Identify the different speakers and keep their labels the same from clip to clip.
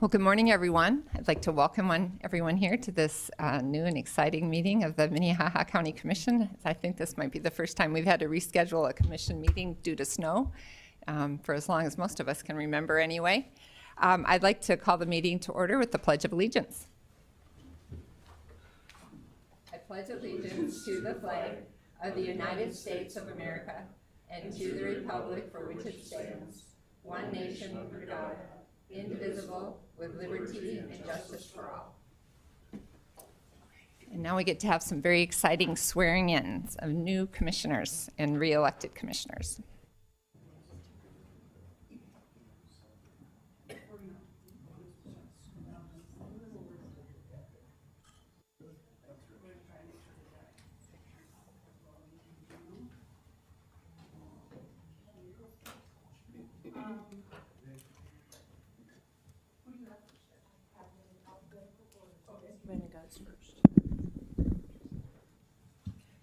Speaker 1: Well, good morning, everyone. I'd like to welcome one- everyone here to this uh, new and exciting meeting of the Minnehaha County Commission. I think this might be the first time we've had to reschedule a commission meeting due to snow, um, for as long as most of us can remember anyway. Um, I'd like to call the meeting to order with the Pledge of Allegiance. I pledge allegiance to the flag of the United States of America and to the republic for which it stands, one nation under God, indivisible, with liberty and justice for all. And now we get to have some very exciting swearing-ins of new commissioners and re-elected commissioners.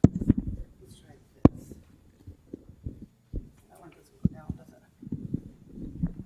Speaker 2: Let's try this. That one doesn't go down, does it?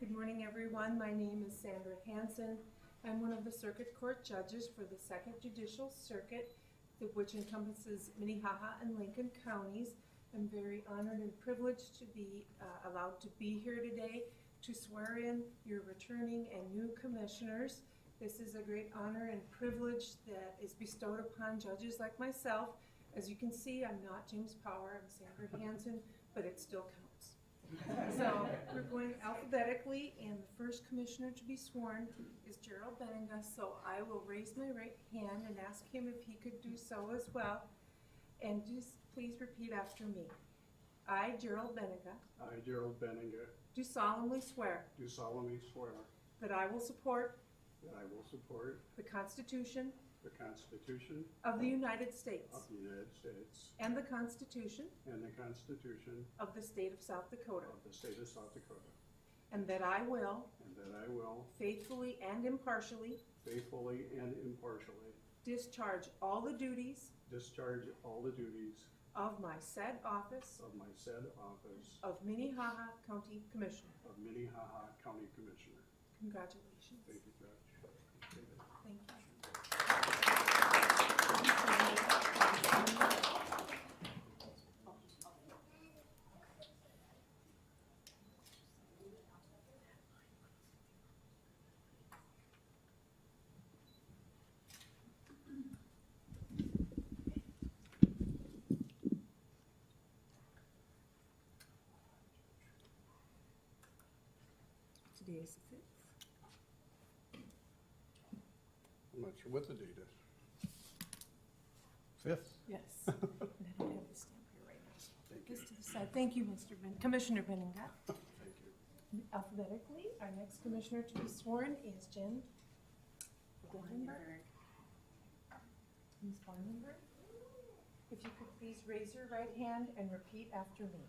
Speaker 3: Good morning, everyone. My name is Sandra Hansen. I'm one of the Circuit Court judges for the Second Judicial Circuit, th- which encompasses Minnehaha and Lincoln counties. I'm very honored and privileged to be uh, allowed to be here today to swear in your returning and new commissioners. This is a great honor and privilege that is bestowed upon judges like myself. As you can see, I'm not James Power, I'm Sandra Hansen, but it still counts. So we're going alphabetically, and the first commissioner to be sworn is Gerald Benega. So I will raise my right hand and ask him if he could do so as well. And just please repeat after me. I, Gerald Benega,
Speaker 4: I, Gerald Benninger,
Speaker 3: do solemnly swear
Speaker 4: do solemnly swear
Speaker 3: that I will support
Speaker 4: that I will support
Speaker 3: the Constitution
Speaker 4: the Constitution
Speaker 3: of the United States
Speaker 4: of the United States
Speaker 3: and the Constitution
Speaker 4: and the Constitution
Speaker 3: of the State of South Dakota,
Speaker 4: of the State of South Dakota,
Speaker 3: and that I will
Speaker 4: and that I will
Speaker 3: faithfully and impartially
Speaker 4: faithfully and impartially
Speaker 3: discharge all the duties
Speaker 4: discharge all the duties
Speaker 3: of my said office
Speaker 4: of my said office
Speaker 3: of Minnehaha County Commissioner.
Speaker 4: of Minnehaha County Commissioner.
Speaker 3: Congratulations.
Speaker 4: Thank you, Judge.
Speaker 3: Thank you.
Speaker 2: Today is the fifth.
Speaker 4: I'm not sure what the date is. Fifth.
Speaker 3: Yes. And I don't have the stamp here right now. Just to the side. Thank you, Mr. Ben, Commissioner Benninga.
Speaker 4: Thank you.
Speaker 3: Alphabetically, our next commissioner to be sworn is Jen Blindberg. Ms. Blindberg, if you could please raise your right hand and repeat after me.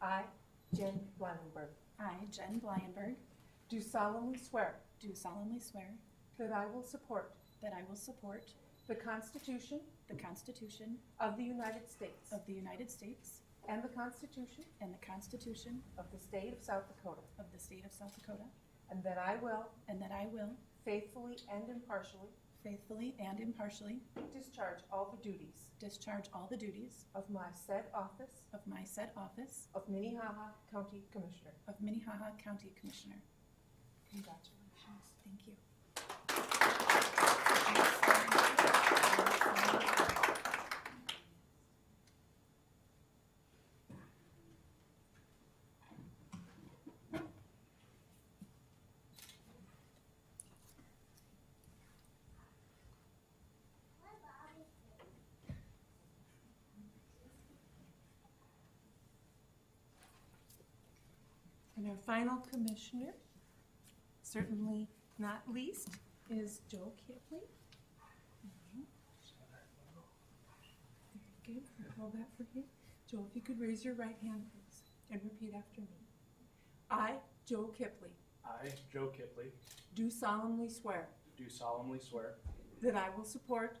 Speaker 3: I, Jen Blindberg,
Speaker 5: I, Jen Blyenberg,
Speaker 3: do solemnly swear
Speaker 5: do solemnly swear
Speaker 3: that I will support
Speaker 5: that I will support
Speaker 3: the Constitution
Speaker 5: the Constitution
Speaker 3: of the United States
Speaker 5: of the United States
Speaker 3: and the Constitution
Speaker 5: and the Constitution
Speaker 3: of the State of South Dakota,
Speaker 5: of the State of South Dakota,
Speaker 3: and that I will
Speaker 5: and that I will
Speaker 3: faithfully and impartially
Speaker 5: faithfully and impartially
Speaker 3: discharge all the duties
Speaker 5: discharge all the duties
Speaker 3: of my said office
Speaker 5: of my said office
Speaker 3: of Minnehaha County Commissioner.
Speaker 5: of Minnehaha County Commissioner.
Speaker 3: Congratulations.
Speaker 5: Thank you.
Speaker 3: And our final commissioner, certainly not least, is Joe Kipley. Very good. I'll Hold that for you. Joe, if you could raise your right hand, please, and repeat after me. I, Joe Kipley,
Speaker 6: I, Joe Kipley,
Speaker 3: do solemnly swear
Speaker 6: do solemnly swear
Speaker 3: that I will support